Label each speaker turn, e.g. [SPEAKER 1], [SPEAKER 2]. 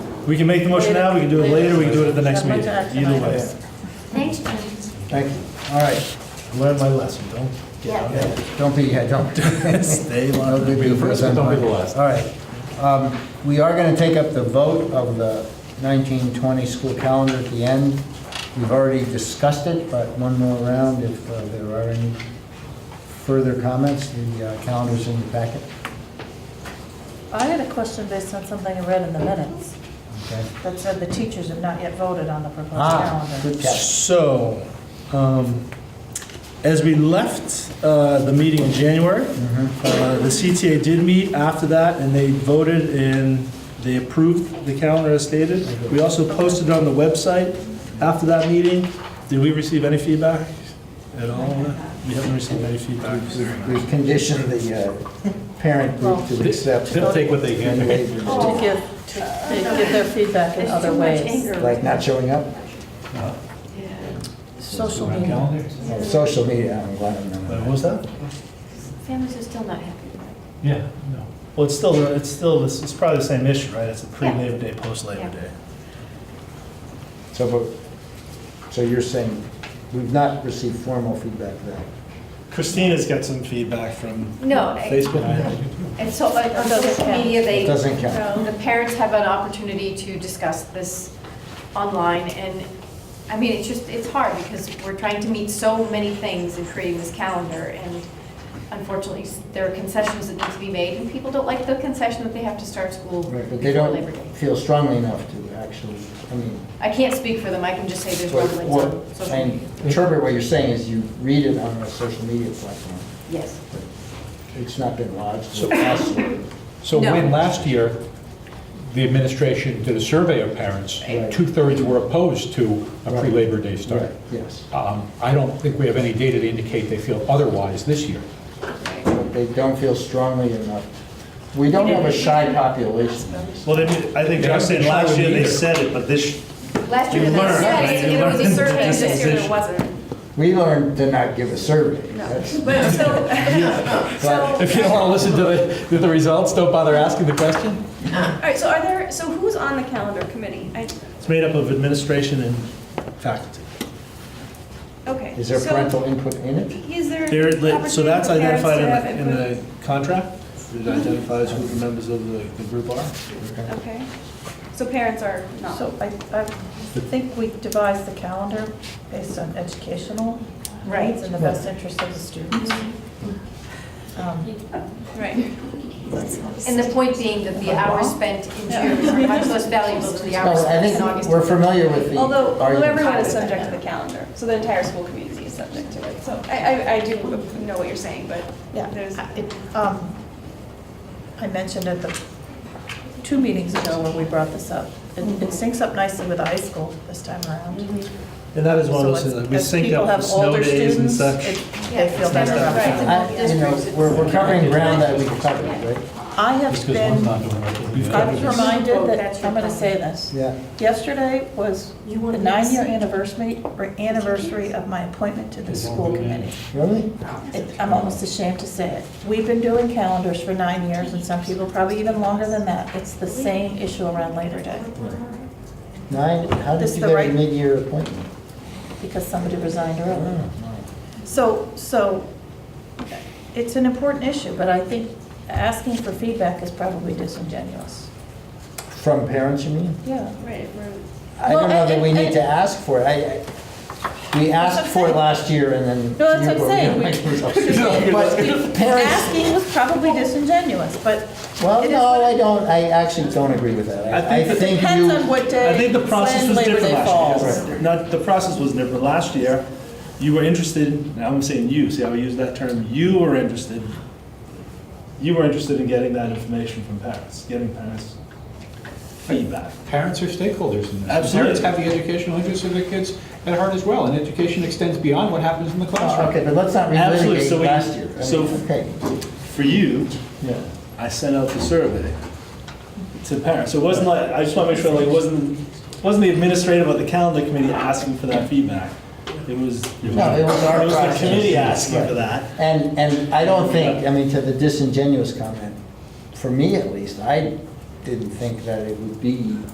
[SPEAKER 1] We can make the motion now, we can do it later, we can do it at the next
[SPEAKER 2] Not much
[SPEAKER 1] meeting,
[SPEAKER 2] action
[SPEAKER 1] either way.
[SPEAKER 2] items.
[SPEAKER 3] Thanks, Jim.
[SPEAKER 4] Thank you. All right.
[SPEAKER 1] Learn my lesson, don't get out
[SPEAKER 3] Yeah.
[SPEAKER 1] of
[SPEAKER 4] Don't be, yeah, don't.
[SPEAKER 1] Stay long.
[SPEAKER 4] Don't be the first,
[SPEAKER 1] but
[SPEAKER 4] I'm
[SPEAKER 1] don't be
[SPEAKER 4] fine.
[SPEAKER 1] the last.
[SPEAKER 4] All right. Um, We are going to take up the vote of the 1920 school calendar at the end. We've already discussed it, but one more round if uh, there are any further comments. The uh, calendar's in the packet.
[SPEAKER 2] I had a question based on something I read in the minutes
[SPEAKER 4] Okay.
[SPEAKER 2] that said the teachers have not yet voted on the proposed
[SPEAKER 4] Ah,
[SPEAKER 2] calendar.
[SPEAKER 4] good catch.
[SPEAKER 1] So, um, as we left uh, the meeting in January, uh, the CTA did meet after that, and they voted and they approved the calendar as stated. We also posted it on the website after that meeting. Did we receive any feedback at all? We haven't received any feedback.
[SPEAKER 4] We've conditioned the uh, parent group to accept.
[SPEAKER 5] They'll take what they
[SPEAKER 4] any
[SPEAKER 5] can.
[SPEAKER 4] waivers,
[SPEAKER 2] To give, to to give their feedback in
[SPEAKER 3] There's
[SPEAKER 2] other
[SPEAKER 3] too much
[SPEAKER 2] ways.
[SPEAKER 3] anger.
[SPEAKER 4] Like not showing up?
[SPEAKER 2] Social media.
[SPEAKER 4] Oh, Social media, I'm glad I'm
[SPEAKER 1] What
[SPEAKER 4] not.
[SPEAKER 1] was that?
[SPEAKER 3] Families are still not happy with it.
[SPEAKER 1] Yeah, no. Well, it's still, it's still, it's it's probably the same issue, right? It's a pre-Labor Day, post-Labor
[SPEAKER 3] Yeah.
[SPEAKER 1] Day.
[SPEAKER 4] So, but, so you're saying we've not received formal feedback then?
[SPEAKER 1] Christina's got some feedback from
[SPEAKER 3] No, I-
[SPEAKER 1] Facebook.
[SPEAKER 3] and so like, on
[SPEAKER 2] Doesn't
[SPEAKER 3] social
[SPEAKER 2] count.
[SPEAKER 3] media, they,
[SPEAKER 4] It doesn't
[SPEAKER 3] um,
[SPEAKER 4] count.
[SPEAKER 3] the parents have an opportunity to discuss this online, and, I mean, it's just, it's hard, because we're trying to meet so many things in creating this calendar, and unfortunately, s- there are concessions that need to be made, and people don't like the concession that they have to start school
[SPEAKER 4] Right, but they
[SPEAKER 3] before
[SPEAKER 4] don't
[SPEAKER 3] Labor Day.
[SPEAKER 4] feel strongly enough to actually, I mean,
[SPEAKER 3] I can't speak for them, I can just say there's
[SPEAKER 4] what,
[SPEAKER 3] rumblings on
[SPEAKER 4] what,
[SPEAKER 3] social
[SPEAKER 4] and
[SPEAKER 3] media.
[SPEAKER 4] interpret what you're saying is you read it on a social media platform.
[SPEAKER 3] Yes.
[SPEAKER 4] It's not been lodged
[SPEAKER 5] So-
[SPEAKER 4] with us.
[SPEAKER 5] So
[SPEAKER 3] No.
[SPEAKER 5] when last year, the administration did a survey of parents,
[SPEAKER 4] Right.
[SPEAKER 5] two-thirds were opposed to a
[SPEAKER 4] Right.
[SPEAKER 5] pre-Labor Day start.
[SPEAKER 4] Right, Yes,
[SPEAKER 5] Um, I don't think we have any data to indicate they feel otherwise this year.
[SPEAKER 4] but they don't feel strongly enough. We don't have a shy population.
[SPEAKER 1] Well, they did- I think
[SPEAKER 5] Yeah,
[SPEAKER 1] they're
[SPEAKER 5] I'm
[SPEAKER 1] saying
[SPEAKER 5] sure
[SPEAKER 1] last
[SPEAKER 5] we
[SPEAKER 1] year they
[SPEAKER 5] need it.
[SPEAKER 1] said it, but this,
[SPEAKER 3] Last year,
[SPEAKER 1] You
[SPEAKER 3] they
[SPEAKER 1] learn,
[SPEAKER 3] said
[SPEAKER 1] right?
[SPEAKER 3] it, and
[SPEAKER 1] You
[SPEAKER 3] it was a
[SPEAKER 1] learn.
[SPEAKER 3] survey, and this year there
[SPEAKER 1] Decision.
[SPEAKER 3] wasn't.
[SPEAKER 4] We learned to not give a survey. That's-
[SPEAKER 3] But so,
[SPEAKER 4] But-
[SPEAKER 3] so,
[SPEAKER 5] If you don't want to listen to the, to the results, don't bother asking the question?
[SPEAKER 6] All right, so are there, so who's on the calendar committee? I-
[SPEAKER 1] it's made up of administration and faculty.
[SPEAKER 6] Okay.
[SPEAKER 4] Is there
[SPEAKER 6] so
[SPEAKER 4] parental input in it?
[SPEAKER 6] Is there
[SPEAKER 1] They're
[SPEAKER 6] opportunity
[SPEAKER 1] lit- So that's
[SPEAKER 6] for parents
[SPEAKER 1] identified
[SPEAKER 6] to
[SPEAKER 1] in
[SPEAKER 6] have
[SPEAKER 1] the, in
[SPEAKER 6] input?
[SPEAKER 1] the contract? It identifies who the members of the the group are?
[SPEAKER 6] Okay, so parents are not.
[SPEAKER 2] So I, I think we devised the calendar based on educational
[SPEAKER 3] Right.
[SPEAKER 2] needs and the best interest of the students.
[SPEAKER 3] Mm-hmm.
[SPEAKER 2] Um,
[SPEAKER 6] Right,
[SPEAKER 3] and the point being that the hours
[SPEAKER 1] Uh-huh.
[SPEAKER 3] spent in June are much less valuable than the hours
[SPEAKER 4] No, I
[SPEAKER 3] spent in
[SPEAKER 4] think
[SPEAKER 3] August.
[SPEAKER 4] we're familiar with the
[SPEAKER 6] although, uh, although
[SPEAKER 4] argument.
[SPEAKER 6] everyone is subject to the calendar, so the entire school community is subject to it. So I, I, I do know what you're saying, but
[SPEAKER 2] Yeah.
[SPEAKER 6] there's,
[SPEAKER 2] it, um, I mentioned at the, two meetings ago when we brought this up, it
[SPEAKER 3] Mm-hmm.
[SPEAKER 2] it syncs up nicely with the high school this time around.
[SPEAKER 1] And that is one of those
[SPEAKER 2] So
[SPEAKER 1] things,
[SPEAKER 2] as-
[SPEAKER 1] that uh, we
[SPEAKER 2] as
[SPEAKER 1] sync
[SPEAKER 2] people
[SPEAKER 1] up the
[SPEAKER 2] have
[SPEAKER 1] snow
[SPEAKER 2] older
[SPEAKER 1] days and
[SPEAKER 2] students,
[SPEAKER 1] such.
[SPEAKER 2] it- They feel better about
[SPEAKER 3] Right.
[SPEAKER 2] it.
[SPEAKER 4] I- You know, we're, we're covering ground that we covered, right?
[SPEAKER 2] I have
[SPEAKER 5] Just because one's
[SPEAKER 2] been,
[SPEAKER 5] not doing right. we've got
[SPEAKER 2] I
[SPEAKER 5] to
[SPEAKER 2] was
[SPEAKER 5] do this.
[SPEAKER 2] reminded that,
[SPEAKER 3] That's your
[SPEAKER 2] I'm going to
[SPEAKER 3] problem.
[SPEAKER 2] say this.
[SPEAKER 4] Yeah.
[SPEAKER 2] Yesterday was
[SPEAKER 3] You
[SPEAKER 2] the
[SPEAKER 3] wanna
[SPEAKER 2] nine-year
[SPEAKER 3] miss?
[SPEAKER 2] anniversary, or anniversary of my appointment to the school committee.
[SPEAKER 4] Really?
[SPEAKER 2] It- I'm almost ashamed to say it. We've been doing calendars for nine years, and some people probably even longer than that. It's the same issue around Labor Day,
[SPEAKER 4] Nine, how did
[SPEAKER 2] This
[SPEAKER 4] you
[SPEAKER 2] the
[SPEAKER 4] get a
[SPEAKER 2] right-
[SPEAKER 4] mid-year appointment?
[SPEAKER 2] because somebody resigned early.
[SPEAKER 4] Oh,
[SPEAKER 2] So, so it's an important issue, but I think asking for feedback is probably disingenuous.
[SPEAKER 4] From parents, you mean?
[SPEAKER 2] Yeah.
[SPEAKER 6] right, we're-
[SPEAKER 4] I
[SPEAKER 2] Well,
[SPEAKER 4] don't know that
[SPEAKER 2] and-
[SPEAKER 4] we need
[SPEAKER 2] and-
[SPEAKER 4] to ask for it. I- I, we asked for it last year and then.
[SPEAKER 2] No, that's what I'm
[SPEAKER 4] saying. But parents,
[SPEAKER 2] Asking was probably disingenuous, but
[SPEAKER 4] well,
[SPEAKER 2] It is
[SPEAKER 4] no,
[SPEAKER 2] what-
[SPEAKER 4] I don't, I actually don't agree with that. I-
[SPEAKER 1] I
[SPEAKER 4] I
[SPEAKER 1] think that
[SPEAKER 4] think
[SPEAKER 2] depends
[SPEAKER 4] you,
[SPEAKER 2] on what
[SPEAKER 1] I
[SPEAKER 2] day,
[SPEAKER 1] think the process
[SPEAKER 2] when
[SPEAKER 1] was
[SPEAKER 2] Labor
[SPEAKER 1] different last
[SPEAKER 2] Day falls.
[SPEAKER 1] year. Not, the process was different. Last year, you were interested, and I'm saying you, see how I use that term? You were interested, you were interested in getting that information from parents, getting parents feedback.
[SPEAKER 5] Parents are stakeholders in this.
[SPEAKER 1] Absolutely.
[SPEAKER 5] Parents have the educational interests of their kids at heart as well, and education extends beyond what happens in the
[SPEAKER 4] Oh,
[SPEAKER 5] classroom.
[SPEAKER 4] okay, but let's not
[SPEAKER 1] Absolutely, so
[SPEAKER 4] relitigate
[SPEAKER 1] we-
[SPEAKER 4] last year. I mean,
[SPEAKER 1] so-
[SPEAKER 4] Okay,
[SPEAKER 1] For you,
[SPEAKER 4] yeah.
[SPEAKER 1] I sent out the survey to parents. So it wasn't like, I just want to make sure, like, it wasn't, wasn't the administrative or the calendar committee asking for that feedback? It was, it
[SPEAKER 4] No, it was our
[SPEAKER 1] was
[SPEAKER 4] process.
[SPEAKER 1] the committee asking for
[SPEAKER 4] Right.
[SPEAKER 1] that.
[SPEAKER 4] And, and I don't think, I mean, to the disingenuous comment, for me at least, I didn't think that it would be